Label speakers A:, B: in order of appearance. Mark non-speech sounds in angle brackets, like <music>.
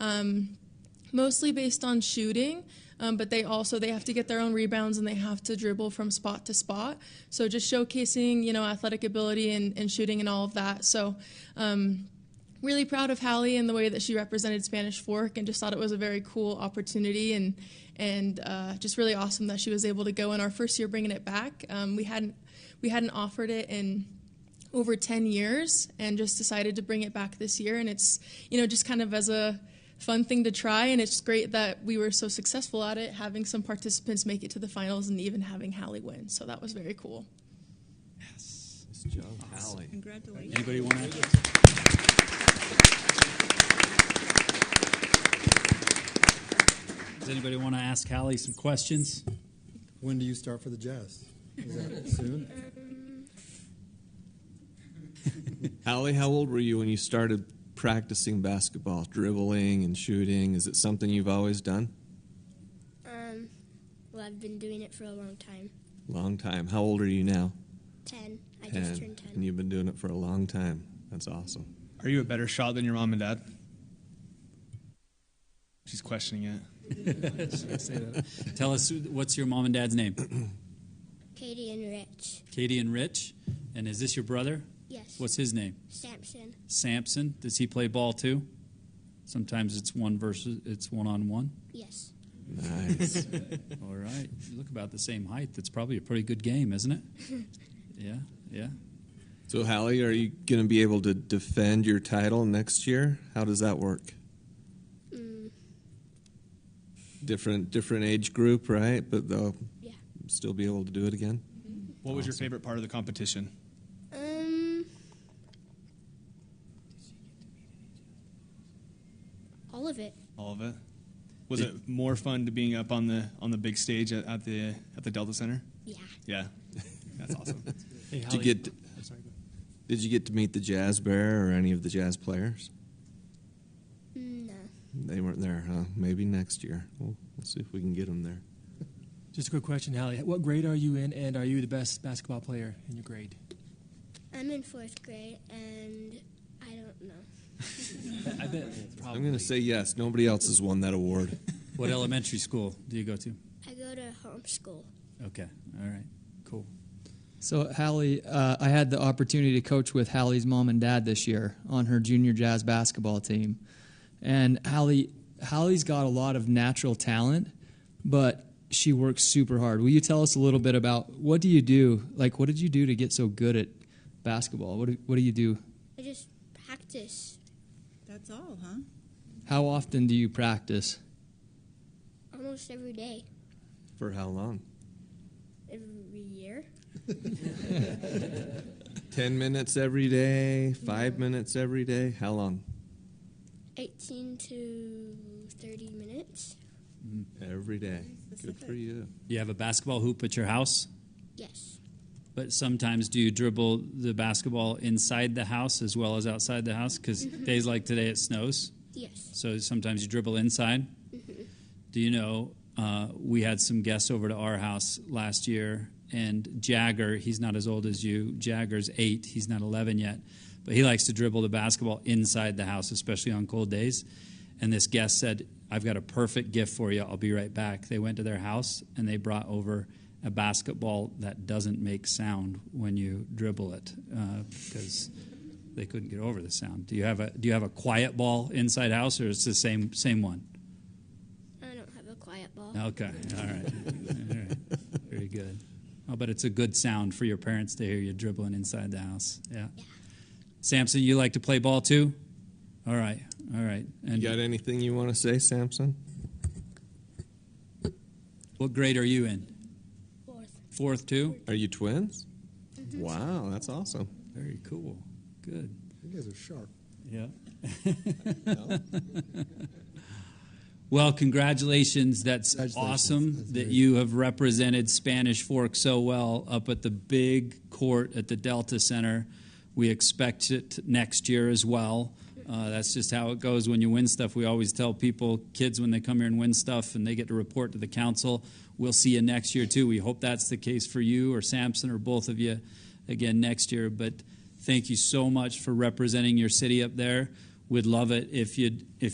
A: um, mostly based on shooting. Um, but they also they have to get their own rebounds and they have to dribble from spot to spot. So just showcasing you know athletic ability and, and shooting and all of that. So um, really proud of Hallie and the way that she represented Spanish Fork and just thought it was a very cool opportunity and and uh, just really awesome that she was able to go in our first year bringing it back. Um, we hadn't we hadn't offered it in over 10 years and just decided to bring it back this year and it's you know just kind of as a fun thing to try and it's great that we were so successful at it having some participants make it to the finals and even having Hallie win so that was very cool.
B: Yes. It's Joe Hallie.
C: Congratulations.
B: Anybody want to? Does anybody want to ask Hallie some questions?
D: When do you start for the Jazz? Is that soon?
C: Hallie, how old were you when you started practicing basketball, dribbling and shooting? Is it something you've always done?
E: Um, well, I've been doing it for a long time.
C: Long time. How old are you now?
E: Ten. I just turned ten.
C: And you've been doing it for a long time. That's
E: <laughs>
C: awesome.
F: Are you a better shot than your mom and dad? She's questioning it.
B: Tell us who- what's your mom and dad's name?
E: Katie and Rich.
B: Katie and Rich. And is this your brother?
E: Yes.
B: What's his name?
E: Samson?
B: Samson. Does he play ball too? Sometimes it's one versus it's one on one.
E: Yes.
C: Nice.
B: All right. You look about the same height. That's probably a pretty good game, isn't it? Yeah, yeah.
C: so, Hallie, are you going to be able to defend your title next year? How does that work?
E: Mm,
C: Different different age group, right? But they'll
E: yeah.
C: still be able to do it again.
F: What was your favorite part of the competition?
E: Um. All of it.
F: All of it. Was it more fun to being up on the on the big stage at, at the at the Delta Center?
E: Yeah.
F: Yeah, that's awesome.
G: Hey,
C: Did you get
G: I'm sorry, go ahead.
C: Did you get to meet the Jazz Bear or any of the Jazz players?
E: Mm, No.
C: They weren't there, huh? Maybe next year. We'll, we'll see if we can get them there.
G: Just a quick question, Hallie. What grade are you in, and are you the best basketball player in your grade?
E: I'm in fourth grade, and I don't know.
G: I bet probably.
C: I'm going to say yes. Nobody else has won that award.
B: What elementary school do you go to?
E: I go to homeschool.
B: Okay. All right. Cool.
H: So, Hallie, uh, I had the opportunity to coach with Hallie's mom and dad this year on her junior jazz basketball team. And Hallie, Hallie's got a lot of natural talent, but she works super hard. Will you tell us a little bit about what do you do? Like, what did you do to get so good at basketball? What do, what do you do?
E: I just practice
C: That's all, huh?
H: How often do you practice?
E: almost every day,
C: <laughs> For how long?
E: every year.
C: 10 minutes every day, five minutes every day. How long?
E: 18 to 30 minutes.
C: Every day. Good for you.
B: You have a basketball hoop at your house,
E: Yes.
B: but sometimes do you dribble the basketball inside the house as well as outside the house? Because days like today, it snows.
E: Yes.
B: So sometimes you dribble inside. Do you know? Uh, we had some guests over to our house last year, and Jagger, he's not as old as you. Jagger's eight, he's not 11 yet, but he likes to dribble the basketball inside the house, especially on cold days. And this guest said, I've got a perfect gift for you. I'll be right back. They went to their house and they brought over a basketball that doesn't make sound when you dribble it uh, because they couldn't get over the sound. Do you have a do you have a quiet ball inside house or it's the same same one?
E: I don't have a quiet ball.
B: Okay, all right, all right, very good. I'll bet it's a good sound for your parents to hear you dribbling inside the house. Yeah. Samson, you like to play ball too? All right, all right.
C: You
B: And
C: got anything you want to say, Samson?
B: what grade are you in?
E: Fourth.
B: Fourth too.
C: Are you twins? Wow, that's awesome.
B: Very cool. Good.
D: You guys are sharp.
B: Yeah. Well, congratulations. That's
D: Congratulations.
B: awesome
D: That's
B: that
D: very-
B: you have represented Spanish Fork so well up at the big court at the Delta Center. We expect it next year as well. Uh, that's just how it goes when you win stuff. We always tell people, kids, when they come here and win stuff and they get to report to the council, we'll see you next year too. We hope that's the case for you or Sampson or both of you again next year. But thank you so much for representing your city up there. We'd love it if you'd if